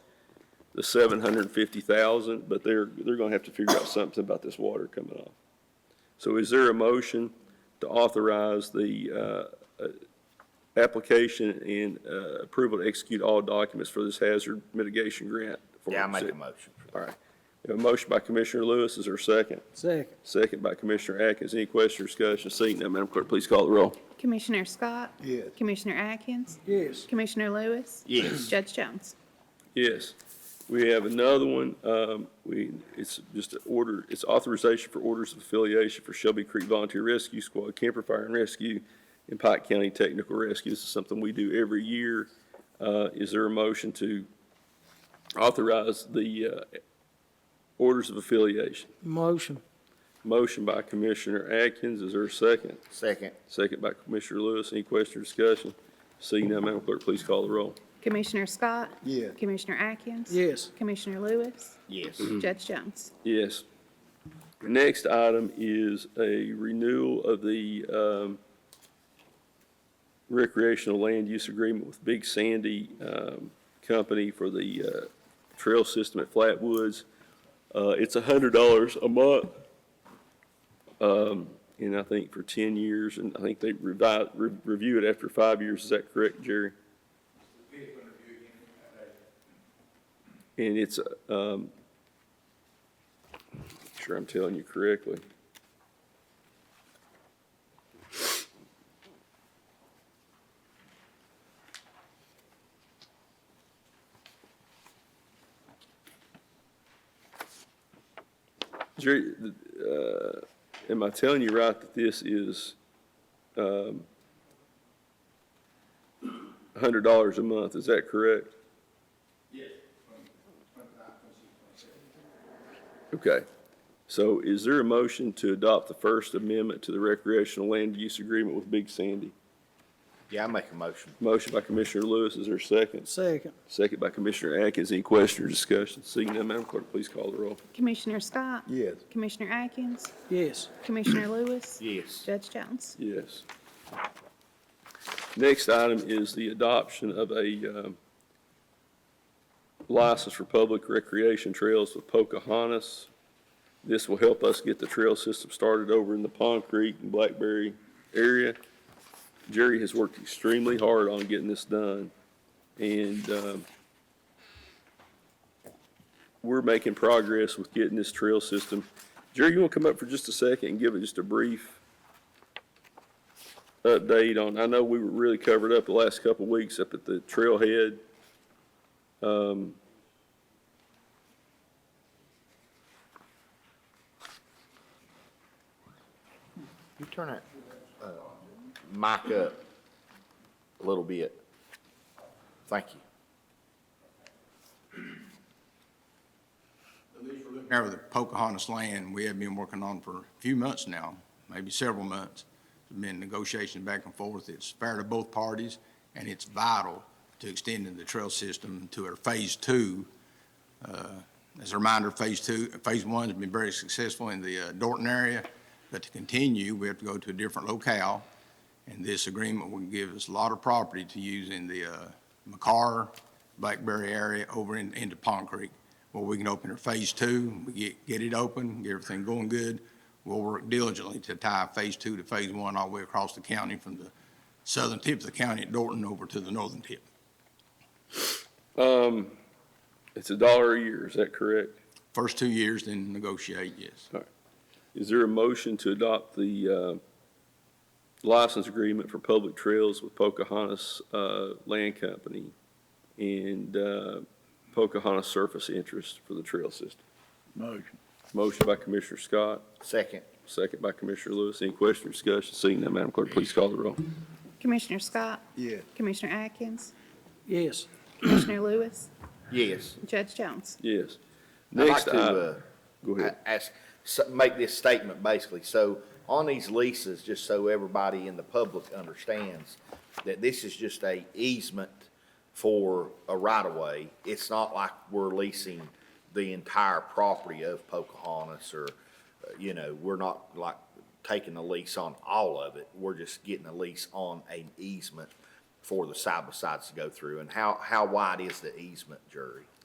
the seven hundred and fifty thousand, but they're, they're gonna have to figure out something about this water coming off. So is there a motion to authorize the, uh, uh, application and, uh, approval to execute all documents for this hazard mitigation grant? for Yeah, I the make city? a motion. All right. We have A motion by Commissioner Lewis is there a second. Second. Second by Commissioner Atkins. Any question or discussion? Seeing none, Madam Clerk, please call the roll. Commissioner Scott? Yes. Commissioner Atkins? Yes. Commissioner Lewis? Yes. Judge Jones? Yes. We have another one. Um, we, it's just an order, it's authorization for orders of affiliation for Shelby Creek Volunteer Rescue Squad, Camper Fire and Rescue, and Pike County Technical Rescue. This is something we do every year. Uh, is there a motion to authorize the, uh, orders of affiliation? Motion. Motion by Commissioner Atkins. Is there a second? Second, Second by Commissioner Lewis. Any question or discussion? Seeing none, Madam Clerk, please call the roll. Commissioner Scott? Yeah. Commissioner Atkins? Yes. Commissioner Lewis? yes. Judge Jones? Yes. Next item is a renewal of the um, recreational land use agreement with Big Sandy um, Company for the uh, trail system at Flatwoods. Uh, It's $100 a month, um, and I think for 10 years, and I think they revi- re- review it after five years. Is that correct, Jerry? And it's, um, sure I'm telling you correctly. Jerry, th- uh, am I telling you right that this is, um, hundred dollars a month, is that correct? Okay. So is there a motion to adopt the First Amendment to the recreational land use agreement with Big Sandy? Yeah, I make a motion. Motion by Commissioner Lewis, is there a second? Second. Second by Commissioner Atkins, any question or discussion? Seeing none, Madam Clerk, please call the roll. Commissioner Scott? Yes. Commissioner Atkins? Yes. Commissioner Lewis? Yes. Judge Jones? Yes. Next item is the adoption of a um, license for public recreation trails with Pocahontas. This will help us get the trail system started over in the Pond Creek and Blackberry area. Jerry has worked extremely hard on getting this done, and um, we're making progress with getting this trail system. Jerry, you want to come up for just a second and give it just a brief? update on, I know we were really covered up the last couple of weeks up at the trailhead. Um, You turn that, uh, mic up a little bit. Thank you. Now, the Pocahontas land, we have been working on for a few months now, maybe several months. There's Been negotiation back and forth. It's fair to both parties, and it's vital to extending the trail system to our phase two. Uh, As a reminder, phase two, phase one's been very successful in the uh, Dorton area, but to continue, we have to go to a different locale. And this agreement will give us a lot of property to use in the uh, McCarr, Blackberry area over in- into Pond Creek where we can open our phase two, we get, get it open, get everything going good. We'll work diligently to tie phase two to phase one all the way across the county from the southern tip of the county at Dorton over to the northern tip. um, It's a dollar a year, is that correct? First two years, then negotiate, yes. Is there a motion to adopt the uh, license agreement for public trails with Pocahontas uh, Land Company and uh, Pocahontas Surface Interest for the trail system? Motion. Motion by Commissioner Scott, Second, second by Commissioner Lewis. Any question or discussion? Seeing none, Madam Clerk, please call the roll. Commissioner Scott? Yeah. Commissioner Atkins? Yes. Commissioner Lewis? yes. Judge Jones? Yes. I'd like Next to, item. uh, Go ahead. I- Ask, so- make this statement basically. So on these leases, just so everybody in the public understands, that this is just a easement for a right-of-way. It's not like we're leasing the entire property of Pocahontas or, uh, you know, we're not like taking a lease on all of it. We're just getting a lease on an easement for the side-by-sides to go through. And how, how wide is the easement, Jerry?